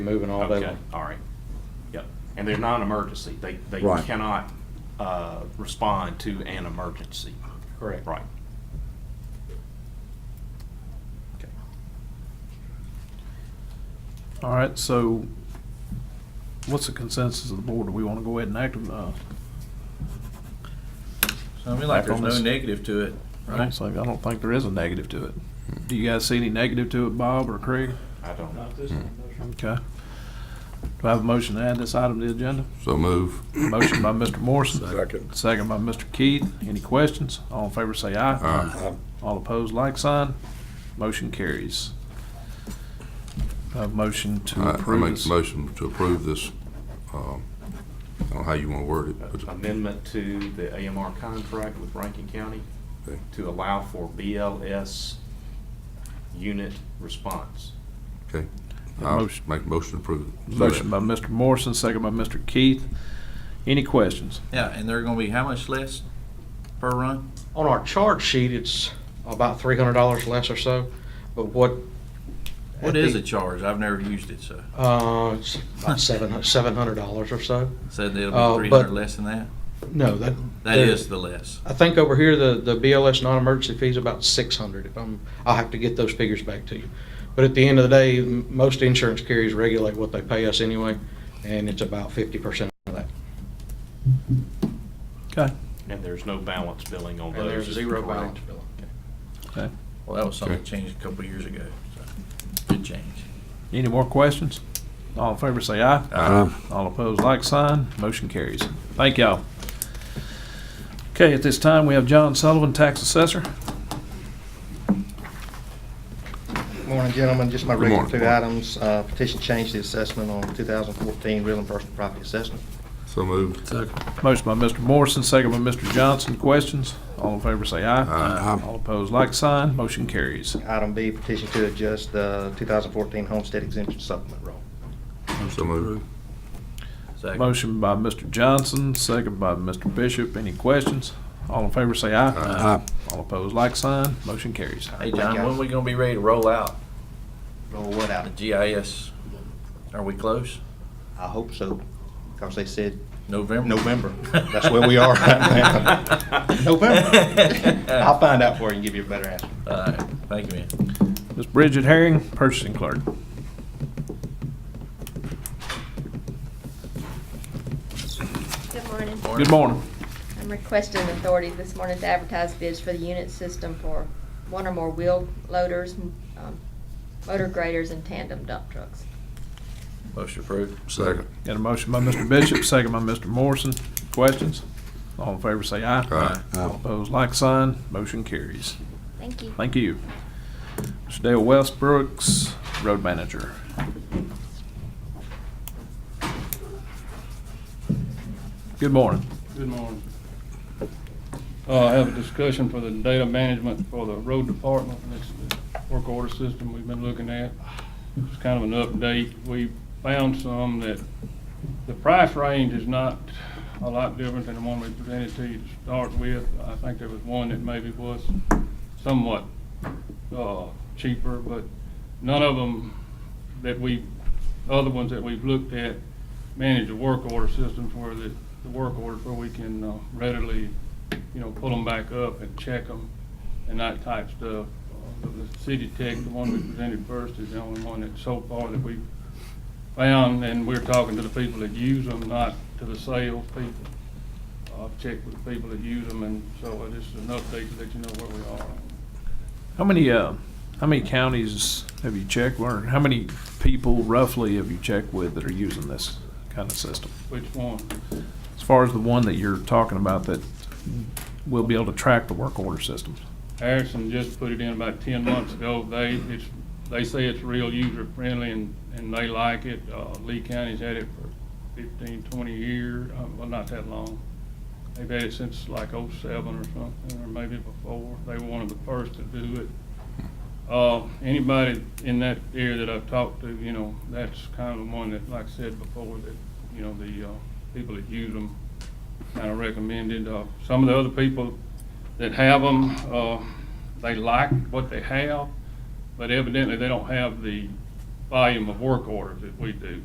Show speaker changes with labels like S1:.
S1: Moving all day
S2: Okay,
S1: long.
S2: all right. Yep. And they're not an emergency. They, they
S3: Right.
S2: cannot uh, respond to an emergency.
S1: Correct.
S2: Right. Okay.
S4: All right, so what's the consensus of the board? Do we want to go ahead and act uh? on,
S5: I mean, like, there's no
S4: Actors.
S5: negative to it.
S4: uh, right? So I don't think there is a negative to it. Do you guys see any negative to it, Bob or Craig?
S2: I don't know.
S4: Okay. Do I have a motion to add this item to the agenda?
S3: So move.
S4: Motion by Mr. Morrison.
S3: Second.
S4: Second by Mr. Keith. Any questions? All in favor say aye.
S3: Aye.
S4: All opposed, like sign. Motion carries. Do I have a motion to
S3: I I
S4: approve
S3: make
S4: this.
S3: the motion to approve this, um, I don't know how you want to word it, but
S2: uh, Amendment to the AMR contract with Rankin County
S3: Okay.
S2: to allow for BLS unit response.
S3: I'll
S4: Motion.
S3: make a motion to approve. it.
S4: Motion by Mr. Morrison, second by Mr. Keith. Any questions?
S5: Yeah, and they're gonna be how much less per run?
S1: On our charge sheet, it's about three hundred dollars less or so, but what.
S5: What is a charge? I've never used it, so.
S1: Uh, it's about seven, seven hundred dollars or so.
S5: Said
S1: Uh,
S5: it'll be three
S1: but-
S5: hundred less than that?
S1: No, that.
S5: That is the less.
S1: I think over here, the, the BLS non-emergency fee is about six hundred. If I'm, I'll have to get those figures back to you. But at the end of the day, m- most insurance carriers regulate what they pay us anyway, and it's about fifty percent of that.
S4: Okay.
S2: And there's no balance billing on those.
S1: And there's
S2: is
S1: zero
S2: correct.
S1: balance billing.
S5: Well, that was something
S3: Okay.
S5: that changed a couple of years ago, so, good change.
S4: Any more questions? All in favor say aye.
S3: Aye.
S4: All opposed, like sign. Motion carries. Thank y'all. Okay, at this time, we have John Sullivan, tax assessor.
S6: Morning, gentlemen. Just my
S3: Good
S6: regular
S3: morning.
S6: two items. Uh, Petition change the assessment on 2014 real and personal property assessment.
S3: So moved.
S4: Motion by Mr. Morrison, second by Mr. Johnson. Questions? All in favor say aye.
S3: Aye.
S4: All opposed, like sign. Motion carries.
S6: Item B, petition to adjust the 2014 homestead exemption supplement roll.
S3: So moved.
S5: Second.
S4: Motion by Mr. Johnson, second by Mr. Bishop. Any questions? All in favor say aye.
S3: Aye.
S4: All opposed, like sign. Motion carries.
S5: Hey, John, when we gonna be ready to roll out
S6: Roll what out?
S5: the GIS? Are we close?
S6: I hope so, because they said
S5: November?
S6: November. That's where we are right now. November. I'll find out for you and give you a better answer.
S5: All right, thank you, man.
S4: Ms. Bridget Herring, purchasing clerk.
S7: Good morning.
S4: Good morning.
S7: I'm requesting authority this morning to advertise bids for the unit system for one or more wheel loaders, um, motor graders, and tandem dump trucks.
S5: Motion approved.
S3: Second.
S4: Got a motion by Mr. Bishop, second by Mr. Morrison. Questions? All in favor say aye.
S3: Aye.
S4: All opposed, like sign. Motion carries.
S7: Thank you.
S4: Thank you. Mr. Dale Westbrooks, road manager. Good morning.
S8: Good morning. Uh, I have a discussion for the data management for the road department. It's the work order system we've been looking at. It's kind of an update. We found some that the price range is not a lot different than the one we presented to you to start with. I think there was one that maybe was somewhat, uh, cheaper, but none of them that we, other ones that we've looked at manage the work order systems where the, the work orders where we can uh, readily, you know, pull them back up and check them and that type stuff. Uh, The the city tech, the one we presented first, is the only one that so far that we found, and we're talking to the people that use them, not to the sales people. I've checked with the people that use them, and so it is an update to let you know where we are.
S4: How many, uh, how many counties have you checked, or how many people roughly have you checked with that are using this kind of system?
S8: Which one?
S4: As far as the one that you're talking about that will be able to track the work order systems.
S8: Harrison just put it in about ten months ago. They, it's, they say it's real user friendly and, and they like it. Uh, Lee County's had it for 15, 20 years, uh, well, not that long. They've had it since like oh seven or something, or maybe before. They were one of the first to do it. Uh, anybody in that area that I've talked to, you know, that's kind of the one that, like I said before, that, you know, the, uh, people that use them kind of recommended. Uh, some of the other people that have them, uh, they like what they have, but evidently they don't have the volume of work orders that we do.